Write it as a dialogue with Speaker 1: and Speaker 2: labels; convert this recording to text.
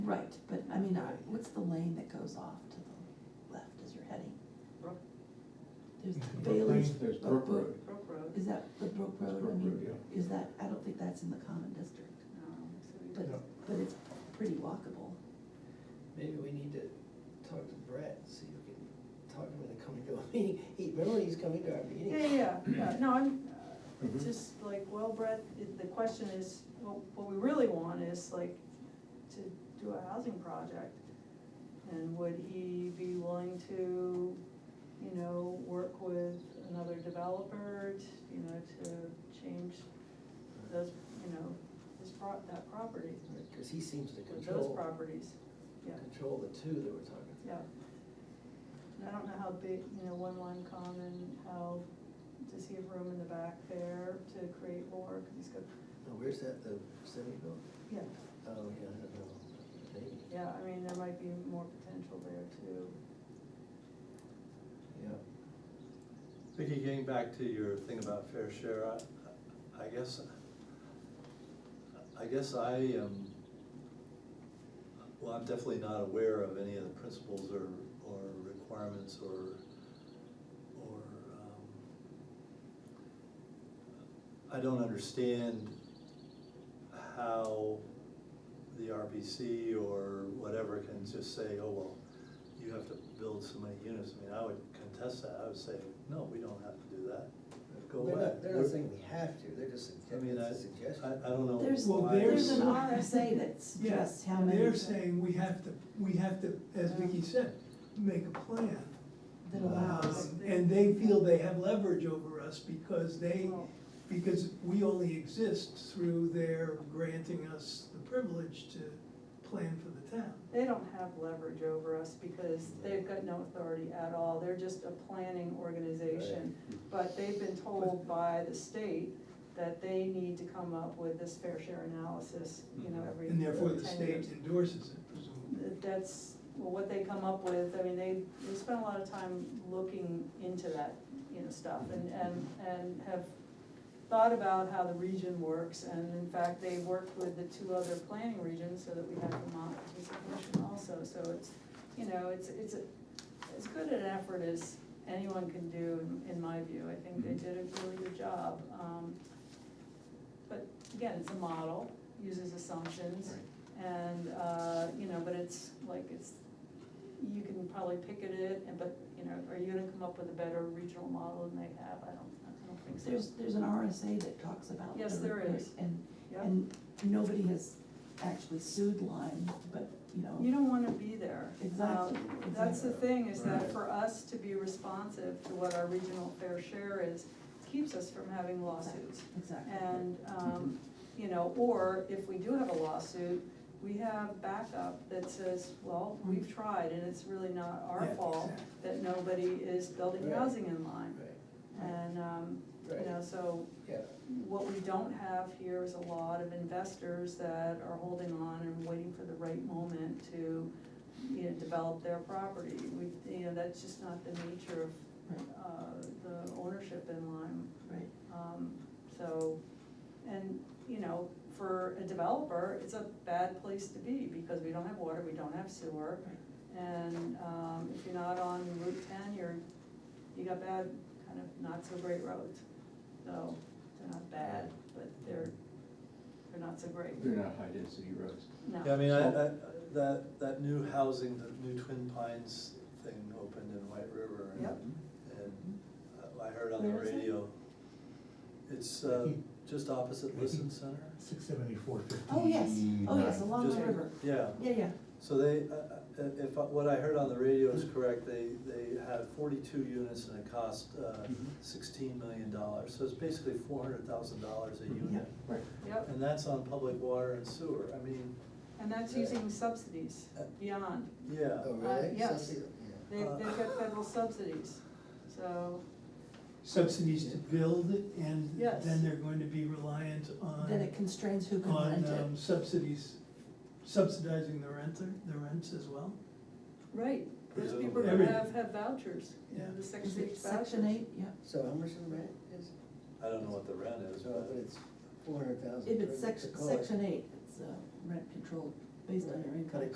Speaker 1: Right, but I mean, I- what's the lane that goes off to the left as you're heading?
Speaker 2: Brook,
Speaker 1: There's the
Speaker 3: Brook
Speaker 1: Bailey's.
Speaker 3: Lane, there's
Speaker 1: Brook-
Speaker 3: Brook
Speaker 1: Brook-
Speaker 3: Road.
Speaker 2: Brook Road,
Speaker 1: Is that the Brook
Speaker 3: That's
Speaker 1: Road? I
Speaker 3: Brook
Speaker 1: mean,
Speaker 3: Road,
Speaker 1: is that, I don't think that's in the common district,
Speaker 2: um, so we
Speaker 1: but,
Speaker 3: No.
Speaker 1: but it's pretty walkable.
Speaker 4: Maybe we need to talk to Brett, see if we can talk to him into coming to a meeting. He, remember, he's coming to our meeting.
Speaker 2: Yeah, yeah, yeah, no, I'm, uh,
Speaker 3: Mhm.
Speaker 2: just like, well, Brett, i- the question is, what, what we really want is like, to do a housing project. And would he be willing to, you know, work with another developer, t- you know, to change those, you know, his pro, that property,
Speaker 4: Cause he seems to
Speaker 2: with those
Speaker 4: control,
Speaker 2: properties, yeah,
Speaker 4: control the two that we're talking.
Speaker 2: yeah. And I don't know how big, you know, one line common, how, does he have room in the back there to create more, cause he's got,
Speaker 4: Now, where's that, the semi built?
Speaker 2: yeah,
Speaker 4: Oh, yeah, I don't know, maybe,
Speaker 2: yeah, I mean, there might be more potential there too.
Speaker 4: yeah.
Speaker 5: Vicky, getting back to your thing about fair share, I, I guess, I guess I am, well, I'm definitely not aware of any of the principles or, or requirements or, or, um, I don't understand how the RPC or whatever can just say, oh, well, you have to build so many units. I mean, I would contest that. I would say, no, we don't have to do that. Go
Speaker 4: They're
Speaker 5: away.
Speaker 4: not, they're not saying we have to, they're just
Speaker 5: I mean,
Speaker 4: suggesting,
Speaker 5: I,
Speaker 4: it's a suggestion.
Speaker 5: I, I don't know.
Speaker 1: There's,
Speaker 3: Well,
Speaker 5: why-
Speaker 1: there's an
Speaker 3: there's-
Speaker 1: RSA that suggests how many.
Speaker 3: They're saying we have to, we have to, as Vicky said, make a plan.
Speaker 1: That allows.
Speaker 3: Um, And they feel they have leverage over us because they,
Speaker 2: Well,
Speaker 3: because we only exist through their granting us the privilege to plan for the town.
Speaker 2: They don't have leverage over us because they've got no authority at all, they're just a planning organization. But they've been told by the state that they need to come up with this fair share analysis, you know, every ten
Speaker 3: Mm-hmm. And
Speaker 2: years.
Speaker 3: therefore the state endorses it presumably.
Speaker 2: That's, well, what they come up with, I mean, they, they spend a lot of time looking into that, you know, stuff and, and, and have thought about how the region works, and in fact, they worked with the two other planning regions so that we had Vermont participation also, so it's, you know, it's, it's a- as good an effort as anyone can do, in- in my view, I think they did a really good job. Um, But again, it's a model, uses assumptions, and, uh, you know, but it's like, it's, you can probably pick at it, and but, you know, are you gonna come up with a better regional model than they have? I don't, I don't think so.
Speaker 1: There's, there's an RSA that talks about.
Speaker 2: Yes,
Speaker 1: the
Speaker 2: there
Speaker 1: report,
Speaker 2: is.
Speaker 1: And,
Speaker 2: Yep.
Speaker 1: and nobody has actually sued Lime, but, you know.
Speaker 2: You don't wanna be there.
Speaker 1: Exactly,
Speaker 2: Um, That's the
Speaker 1: exactly.
Speaker 2: thing, is that
Speaker 5: Right.
Speaker 2: for us to be responsive to what our regional fair share is, keeps us from having lawsuits.
Speaker 1: Exactly.
Speaker 2: And, um, you know, or if we do have a lawsuit, we have backup that says, well, we've tried and it's really not our
Speaker 3: Yeah,
Speaker 2: fault
Speaker 3: exactly.
Speaker 2: that nobody is building
Speaker 4: Right.
Speaker 2: housing in line.
Speaker 4: Right,
Speaker 2: And, um, you know,
Speaker 4: Right.
Speaker 2: so
Speaker 4: yeah,
Speaker 2: what we don't have here is a lot of investors that are holding on and waiting for the right moment to, you know, develop their property. We, you know, that's just not the nature of,
Speaker 1: Right,
Speaker 2: uh, the ownership in Lyme.
Speaker 1: right.
Speaker 2: Um, so, and, you know, for a developer, it's a bad place to be because we don't have water, we don't have sewer. And, um, if you're not on Route ten, you're, you got bad, kind of not so great roads. So, they're not bad, but they're, they're not so great,
Speaker 6: They're not high density roads.
Speaker 2: no.
Speaker 5: Yeah, I mean, I, I, that, that new housing, the new Twin Pines thing opened in White River. and-
Speaker 2: Yep.
Speaker 5: And uh, I- I heard on the
Speaker 1: Where is it?
Speaker 5: radio, it's, uh, just opposite Listen Center.
Speaker 7: Six seventy-four fifty.
Speaker 1: Oh, yes, oh, yes, along the
Speaker 5: Just-
Speaker 1: river.
Speaker 5: Yeah.
Speaker 1: Yeah, yeah.
Speaker 5: So they, uh, uh, if what I heard on the radio is correct, they, they had forty-two units and it cost uh,
Speaker 6: Mhm.
Speaker 5: sixteen million dollars. So it's basically four hundred thousand dollars a
Speaker 1: Yeah.
Speaker 5: unit.
Speaker 6: Right.
Speaker 2: Yep,
Speaker 5: And that's on public water and sewer. I mean,
Speaker 2: and that's using subsidies
Speaker 5: Uh,
Speaker 2: beyond.
Speaker 5: yeah.
Speaker 1: Uh,
Speaker 4: oh, really?
Speaker 2: yes.
Speaker 4: Subsidy?
Speaker 2: They've, they've
Speaker 5: uh,
Speaker 2: got federal subsidies, so,
Speaker 3: Subsidies to build it and
Speaker 2: Yes.
Speaker 3: then they're going to be reliant on.
Speaker 1: Then it constrains who can
Speaker 3: on
Speaker 1: rent it.
Speaker 3: um, subsidies, subsidizing the renter, the rents as well?
Speaker 2: right, those
Speaker 5: Presumably.
Speaker 2: people
Speaker 3: Every-
Speaker 2: have, have vouchers, you know,
Speaker 3: Yeah.
Speaker 2: the
Speaker 1: Is
Speaker 2: section
Speaker 1: it
Speaker 2: eight vouchers.
Speaker 1: section eight? Yeah.
Speaker 4: So how much is the rent is?
Speaker 5: I don't know what the rent is,
Speaker 4: So,
Speaker 5: but
Speaker 4: but it's four hundred thousand.
Speaker 1: If it's section, section eight, it's uh, rent controlled based on your
Speaker 4: Right.
Speaker 1: income.